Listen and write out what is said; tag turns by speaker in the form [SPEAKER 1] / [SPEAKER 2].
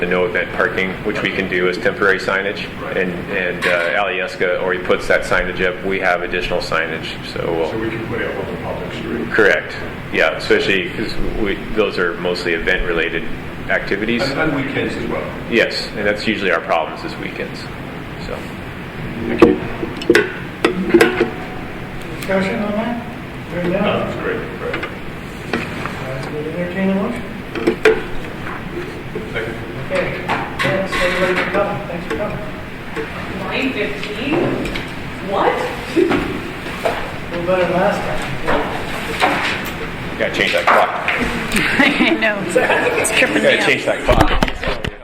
[SPEAKER 1] The no event parking, which we can do as temporary signage, and, and uh, Alyeska already puts that signage up, we have additional signage, so
[SPEAKER 2] So
[SPEAKER 1] we'll,
[SPEAKER 2] we can put it on the public street.
[SPEAKER 1] correct, yeah, especially, because we, those are mostly event-related activities.
[SPEAKER 2] And and weekends as well.
[SPEAKER 1] Yes, and that's usually our problems is weekends, so.
[SPEAKER 2] Thank you.
[SPEAKER 3] Discussion on that? Hearing none,
[SPEAKER 2] That's great, great.
[SPEAKER 3] I will entertain a motion.
[SPEAKER 2] Second.
[SPEAKER 3] Okay, thanks everybody for coming, thanks for coming.
[SPEAKER 4] 9:15?
[SPEAKER 3] A
[SPEAKER 4] What?
[SPEAKER 3] little better than last
[SPEAKER 1] Gotta change that clock.
[SPEAKER 5] I know. It's tripping me
[SPEAKER 1] Gotta
[SPEAKER 5] up.
[SPEAKER 1] change that clock.